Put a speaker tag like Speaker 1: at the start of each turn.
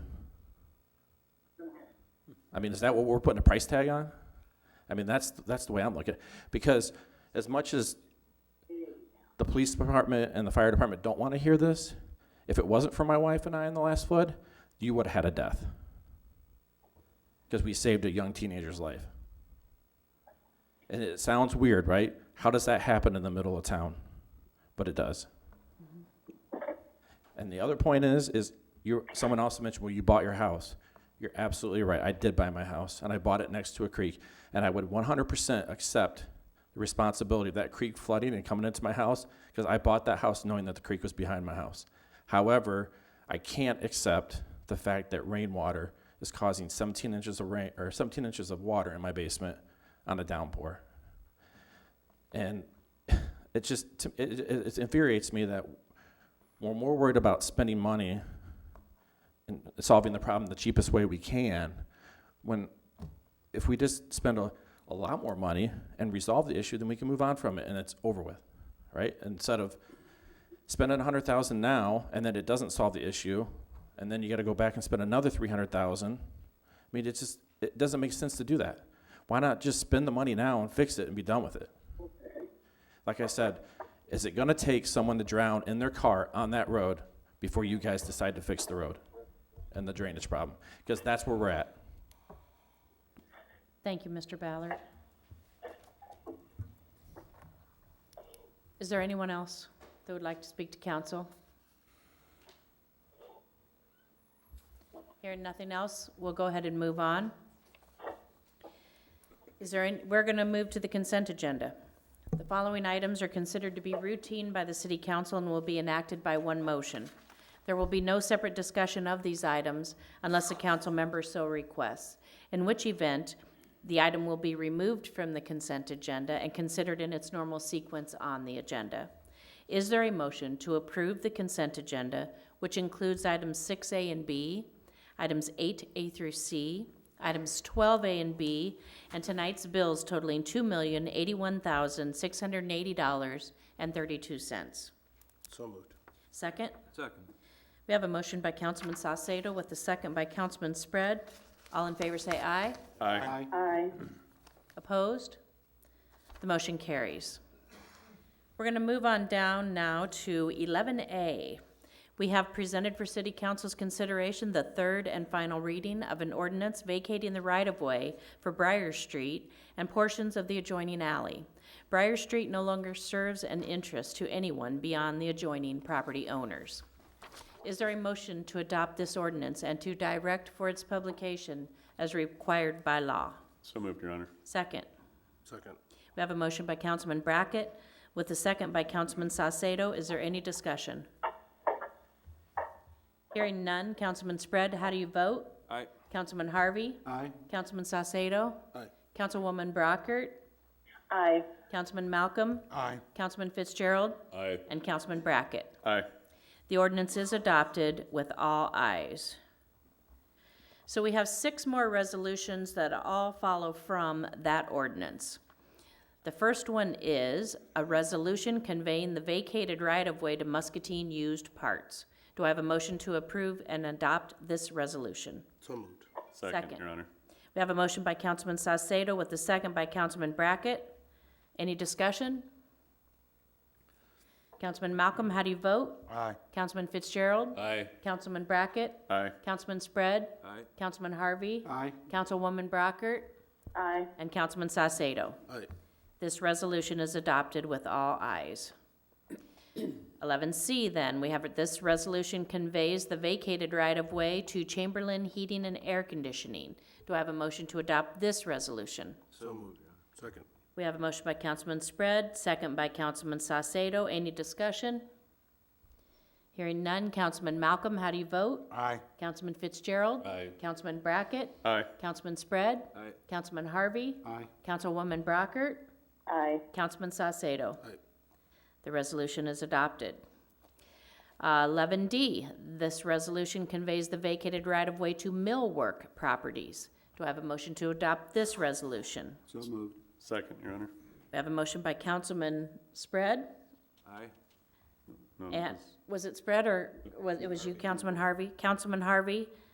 Speaker 1: I mean, is that what we're putting a price tag on? I mean, that's, that's the way I'm looking at it. Because as much as the police department and the fire department don't want to hear this, if it wasn't for my wife and I in the last flood, you would have had a death. Because we saved a young teenager's life. And it sounds weird, right? How does that happen in the middle of town? But it does. And the other point is, is you, someone also mentioned, well, you bought your house. You're absolutely right. I did buy my house and I bought it next to a creek. And I would 100% accept the responsibility of that creek flooding and coming into my house because I bought that house knowing that the creek was behind my house. However, I can't accept the fact that rainwater is causing 17 inches of rain or 17 inches of water in my basement on a downpour. And it just to- it, it, it infuriates me that we're more worried about spending money and solving the problem the cheapest way we can when if we just spend a, a lot more money and resolve the issue then we can move on from it and it's over with right instead of spending 100000 now and then it doesn't solve the issue and then you got to go back and spend another 300000 i mean it just it doesn't make sense to do that why not just spend the money now and fix it and be done with it like I said, is it gonna take someone to drown in their car on that road before you guys decide to fix the road and the drainage problem? Because that's where we're at.
Speaker 2: Thank you, Mr. Ballard. Is there anyone else that would like to speak to council? Hearing nothing else, we'll go ahead and move on. Is there, any- we're going to move to the consent agenda. The following items are considered to be routine by the city council and will be enacted by one motion. There will be no separate discussion of these items unless a council member so requests, in which event the item will be removed from the consent agenda and considered in its normal sequence on the agenda. Is there a motion to approve the consent agenda, which includes items 6A and B, items 8A through C, items 12A and B, and tonight's bills totaling $2,081,680.32?
Speaker 3: So moved.
Speaker 2: Second?
Speaker 4: Second.
Speaker 2: We have a motion by Councilman Saucedo with a second by Councilman Spread. All in favor say aye.
Speaker 3: Aye.
Speaker 2: Opposed? The motion carries. We're going to move on down now to 11A. We have presented for City Council's consideration the third and final reading of an ordinance vacating the right-of-way for Briar Street and portions of the adjoining alley. Briar Street no longer serves an interest to anyone beyond the adjoining property owners. Is there a motion to adopt this ordinance and to direct for its publication as required by law?
Speaker 4: So moved, Your Honor.
Speaker 2: Second.
Speaker 3: Second.
Speaker 2: We have a motion by Councilman Brackett with a second by Councilman Saucedo. Is there any discussion? Hearing none. Councilman Spread, how do you vote?
Speaker 4: Aye.
Speaker 2: Councilman Harvey?
Speaker 3: Aye.
Speaker 2: Councilman Saucedo?
Speaker 3: Aye.
Speaker 2: Councilwoman Brockert?
Speaker 5: Aye.
Speaker 2: Councilman Malcolm?
Speaker 3: Aye.
Speaker 2: Councilman Fitzgerald?
Speaker 4: Aye.
Speaker 2: And Councilman Brackett?
Speaker 4: Aye.
Speaker 2: The ordinance is adopted with all ayes. So we have six more resolutions that all follow from that ordinance. The first one is a resolution conveying the vacated right-of-way to Muscatine used parts. Do I have a motion to approve and adopt this resolution?
Speaker 3: So moved.
Speaker 2: Second.
Speaker 4: Second, Your Honor.
Speaker 2: We have a motion by Councilman Sosado with a second by Councilman Brackett. Any discussion? Councilman Malcolm, how do you vote?
Speaker 3: Aye.
Speaker 2: Councilman Fitzgerald?
Speaker 4: Aye.
Speaker 2: Councilman Brackett,
Speaker 4: Aye.
Speaker 2: Councilman Spread,
Speaker 4: Aye.
Speaker 2: Councilman Harvey,
Speaker 3: Aye.
Speaker 2: Councilwoman Brockert,
Speaker 5: Aye.
Speaker 2: and Councilman Sosado.
Speaker 3: Aye.
Speaker 2: This resolution is adopted with all ayes. Eleven C then, we have, it. this resolution conveys the vacated right-of-way to Chamberlain Heating and Air Conditioning. Do I have a motion to adopt this resolution?
Speaker 3: So moved. Second.
Speaker 2: We have a motion by Councilman Spread, second by Councilman Sosado. Any discussion? Hearing none. Councilman Malcolm, how do you vote?
Speaker 3: Aye.
Speaker 2: Councilman Fitzgerald.
Speaker 4: Aye.
Speaker 2: Councilman Brackett.
Speaker 4: Aye.
Speaker 2: Councilman Spread.
Speaker 4: Aye.
Speaker 2: Councilman Harvey.
Speaker 3: Aye.
Speaker 2: Councilwoman Brockert.
Speaker 5: Aye.
Speaker 2: Councilman Sosado.
Speaker 3: Aye.
Speaker 2: The resolution is adopted. Uh, Eleven D, this resolution conveys the vacated right-of-way to millwork properties. Do I have a motion to adopt this resolution?
Speaker 3: So moved.
Speaker 4: Second, Your Honor.
Speaker 2: We have a motion by Councilman Spread.
Speaker 4: Aye. No,
Speaker 2: And,
Speaker 4: this-
Speaker 2: was it Spread or was, it was you, Councilman Harvey? Councilman Harvey,